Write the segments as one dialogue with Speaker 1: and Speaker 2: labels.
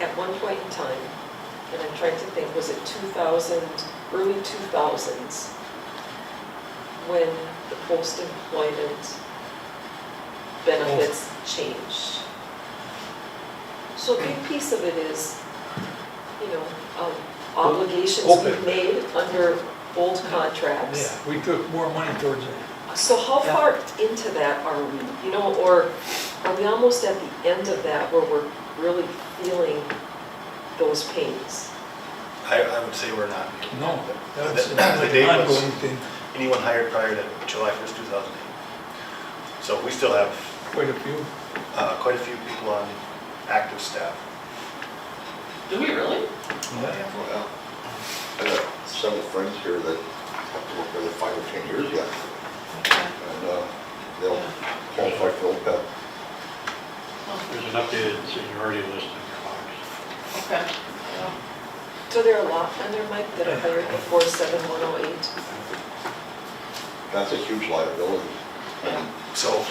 Speaker 1: at one point in time, and I'm trying to think, was it 2000, early 2000s, when the post-employment benefits changed? So a big piece of it is, you know, um, obligations
Speaker 2: Open.
Speaker 1: we've made under old contracts.
Speaker 2: Yeah, we took more money towards it.
Speaker 1: So how
Speaker 2: Yeah.
Speaker 1: far into that are we, you know, or are we almost at the end of that where we're really feeling those pains?
Speaker 3: I, I would say we're not.
Speaker 2: No, that's
Speaker 3: The-
Speaker 2: an
Speaker 3: the date was-
Speaker 2: ongoing thing,
Speaker 3: Anyone hired prior to July 1st, 2008. So we still have
Speaker 2: quite a few.
Speaker 3: uh, quite a few people on active staff.
Speaker 4: Do we really?
Speaker 2: Yeah.
Speaker 5: Well, I got several friends here that have to work for the five or 10 years yet, and uh, they'll qualify for E OPEB.
Speaker 6: There's an updated seniority list in your box.
Speaker 4: Okay. Yeah.
Speaker 1: So there are a lot on there, Mike, that are hired before 71108.
Speaker 5: That's a huge liability. And
Speaker 3: So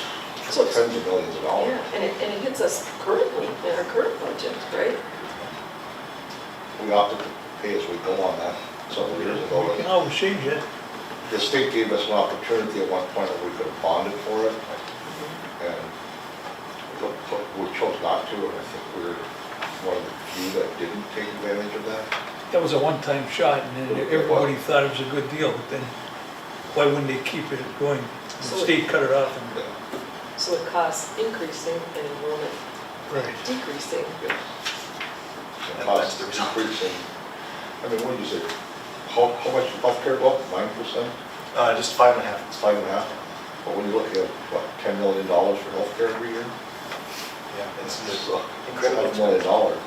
Speaker 1: So
Speaker 5: it's
Speaker 1: it's,
Speaker 5: tens of millions of
Speaker 1: yeah,
Speaker 5: dollars.
Speaker 1: and it, and it hits us currently in our current budget, right?
Speaker 5: We opted to pay as we go on that several years ago.
Speaker 2: We can always change it.
Speaker 5: The state gave us an opportunity at one point that we could have bonded for it,
Speaker 4: Mm-hmm.
Speaker 5: and we cho- we chose not to, and I think we were one of the few that didn't take advantage of that.
Speaker 2: That was a one-time shot and then everybody thought it was a good deal, but then why wouldn't they keep it going? The
Speaker 1: So-
Speaker 2: state cut it off and.
Speaker 5: Yeah,
Speaker 1: So the costs increasing and enrollment
Speaker 2: Right.
Speaker 1: decreasing.
Speaker 5: yes.
Speaker 3: And that's
Speaker 5: The cost
Speaker 3: the result.
Speaker 5: increasing. I mean, what do you say, how, how much did healthcare go up, nine percent,
Speaker 3: uh, just five and a half,
Speaker 5: it's five and a half? But when you look at, what, ten million dollars for healthcare every year?
Speaker 3: yeah, it's
Speaker 5: It's
Speaker 3: just
Speaker 5: uh,
Speaker 3: incredible.
Speaker 5: Five million dollars.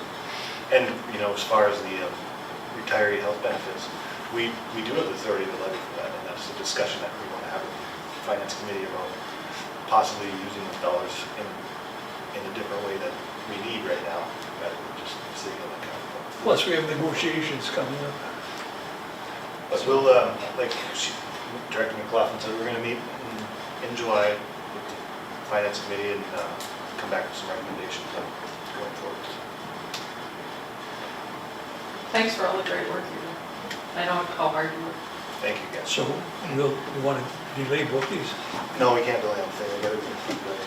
Speaker 3: And, you know, as far as the um, retiree health benefits, we, we do have the authority to levy for that, and that's a discussion that we want to have with the finance committee about possibly using those dollars in, in a different way that we need right now, rather than just sitting in the account.
Speaker 2: Plus, we have negotiations coming up.
Speaker 3: But we'll, um, like she- Director McLaughlin said, we're going to meet in- in July with the finance committee and uh, come back with some recommendations on going forward.
Speaker 4: Thanks for all the great work you do. I know how hard you work.
Speaker 3: Thank you, guys.
Speaker 2: So we'll, we want to delay both these,
Speaker 3: No, we can't delay anything, we gotta keep going.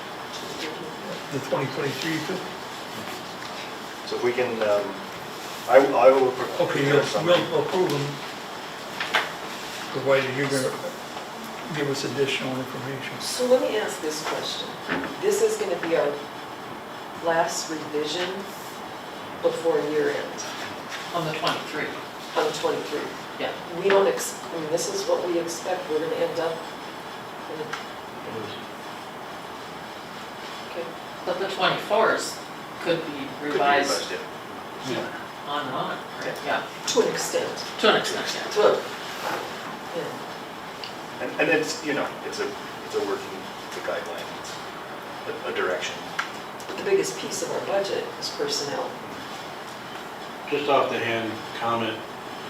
Speaker 2: the 2023 too.
Speaker 3: So if we can, um, I will, I will.
Speaker 2: Okay,
Speaker 3: prepare
Speaker 2: we'll,
Speaker 3: something.
Speaker 2: we'll approve them, provided you're going to give us additional information.
Speaker 1: So let me ask this question. This is going to be our last revision before year end
Speaker 4: On the 23,
Speaker 1: on 23.
Speaker 4: yeah.
Speaker 1: We don't, ex- I mean, this is what we expect, we're going to end up, in- okay,
Speaker 4: But the 24s could
Speaker 3: Could
Speaker 4: be
Speaker 3: be
Speaker 4: revised
Speaker 3: yeah.
Speaker 4: on and on, right? Yeah,
Speaker 1: to an extent,
Speaker 4: to an extent,
Speaker 1: to, a- yeah.
Speaker 3: And, and it's, you know, it's a, it's a working, it's a guideline, it's a, a direction.
Speaker 1: But the biggest piece of our budget is personnel.
Speaker 6: Just off the hand comment,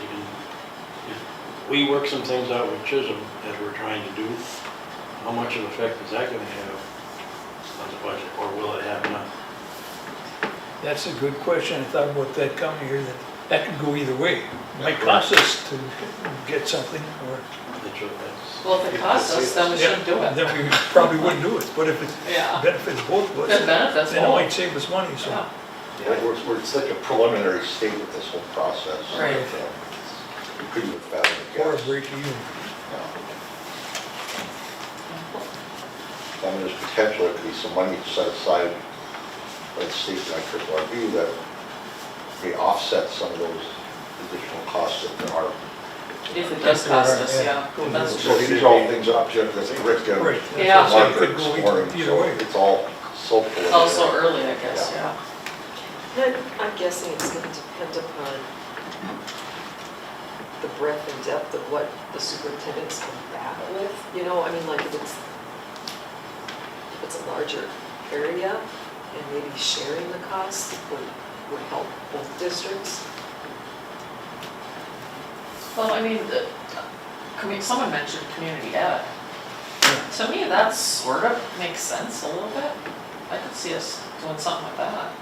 Speaker 6: you can- if we work some things out with Chisholm as we're trying to do, how much of an effect is that going to have on the budget, or will it have none?
Speaker 2: That's a good question. I thought about that coming here, that that could go either way. It might cost us to get something or.
Speaker 6: That's what- that's-
Speaker 4: Well, if it costs us, then we shouldn't do it.
Speaker 2: Then we probably wouldn't do it, but if it
Speaker 4: Yeah.
Speaker 2: benefits both of
Speaker 4: It
Speaker 2: us,
Speaker 4: benefits
Speaker 2: then it
Speaker 4: all.
Speaker 2: might save us money, so.
Speaker 4: Yeah.
Speaker 5: We're, we're- we're in such a preliminary state with this whole process.
Speaker 4: Right.
Speaker 5: We couldn't have found it.
Speaker 2: Or a break even.
Speaker 5: I mean, there's potential, there could be some money set aside, let's see, like for our view, that may offset some of those additional costs that there are.
Speaker 4: If it does cost us, yeah, that's
Speaker 5: So
Speaker 4: true.
Speaker 5: these are all things up to, that Rick did.
Speaker 2: Right. that's what I'm saying,
Speaker 4: Yeah.
Speaker 2: It
Speaker 5: Margaret
Speaker 2: could
Speaker 5: this
Speaker 2: go
Speaker 5: morning,
Speaker 2: either- either
Speaker 5: so
Speaker 2: way.
Speaker 5: It's all so. preliminary.
Speaker 4: Also early, I guess, yeah.
Speaker 1: And I'm- I'm guessing it's going to depend upon the breadth and depth of what the superintendents come back with, you know, I mean, like if it's, if it's a larger area and maybe sharing the cost would, would help both districts.
Speaker 4: Well, I mean, the, commu- someone mentioned community ed. To me, that sort of makes sense a little bit. I could see us doing something with that.